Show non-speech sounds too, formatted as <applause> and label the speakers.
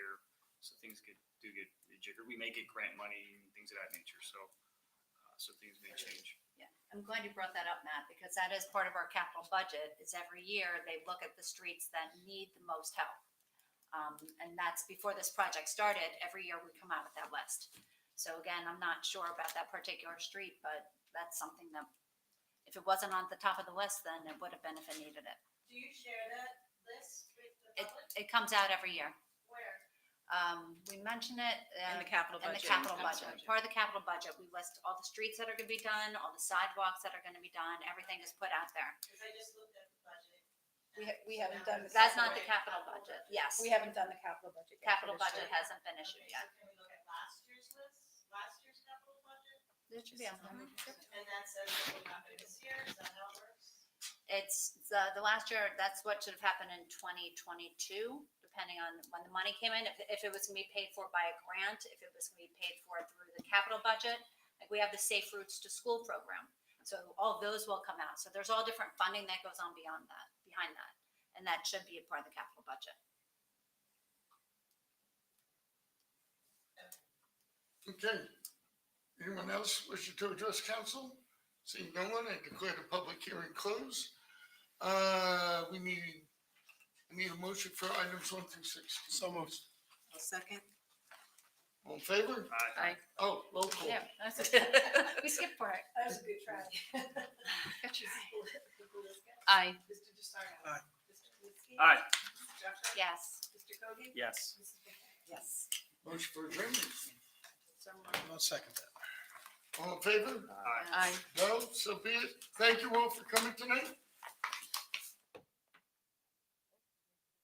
Speaker 1: So things could, do get rejiggered. We may get grant money and things of that nature, so, uh, so things may change.
Speaker 2: I'm glad you brought that up, Matt, because that is part of our capital budget, is every year they look at the streets that need the most help. Um, and that's before this project started, every year we come out with that list. So again, I'm not sure about that particular street, but that's something that, if it wasn't on the top of the list, then it would have been if it needed it.
Speaker 3: Do you share that list with
Speaker 2: It,
Speaker 3: the public?
Speaker 2: it comes out every year.
Speaker 3: Where?
Speaker 2: Um, we mention it. uh,
Speaker 4: In the capital
Speaker 2: And
Speaker 4: budget.
Speaker 2: the capital budget, part of the capital budget, we list all the streets that are gonna be done, all the sidewalks that are gonna be done, everything is put out there.
Speaker 3: Because I just looked at the budget.
Speaker 5: We ha- we haven't done the
Speaker 3: Now,
Speaker 2: That's not the
Speaker 3: separate
Speaker 2: capital budget, yes.
Speaker 5: We haven't done the capital budget yet.
Speaker 2: Capital
Speaker 5: for this
Speaker 2: budget
Speaker 5: year.
Speaker 2: hasn't been issued
Speaker 3: Okay, so
Speaker 2: yet.
Speaker 3: Can we look at last year's list, last year's capital budget?
Speaker 2: It should be on.
Speaker 3: And that says that will happen this year, is that how it works?
Speaker 2: It's, the, the last year, that's what should have happened in twenty twenty-two, depending on when the money came in. If, if it was gonna be paid for by a grant, if it was gonna be paid for through the capital budget, like we have the Safe Routes to School program. So all those will come out. So there's all different funding that goes on beyond that, behind that. And that should be a part of the capital budget.
Speaker 6: Okay. Anyone else wishing to address council? Seeing no one, I declare the public hearing closed. Uh, we need, I need a motion for items one through sixteen. So moved.
Speaker 4: Second.
Speaker 6: All in favor?
Speaker 1: Uh,
Speaker 4: Aye.
Speaker 6: Oh, roll call.
Speaker 2: <laughs> We skipped for it.
Speaker 5: That was a good try.
Speaker 4: Aye.
Speaker 3: Mr. DeSarno?
Speaker 6: Aye.
Speaker 3: Mr. Kaminsky?
Speaker 1: Aye.
Speaker 3: Mrs. Jeffrey?
Speaker 2: Yes.
Speaker 3: Mr. Cody?
Speaker 1: Yes.
Speaker 3: Mrs. McKay?
Speaker 5: Yes.
Speaker 6: Motion for adjournment.
Speaker 2: So moved.
Speaker 7: I'll second that.
Speaker 6: All in favor?
Speaker 1: Aye.
Speaker 7: Aye.
Speaker 6: No, so be it. Thank you all for coming tonight.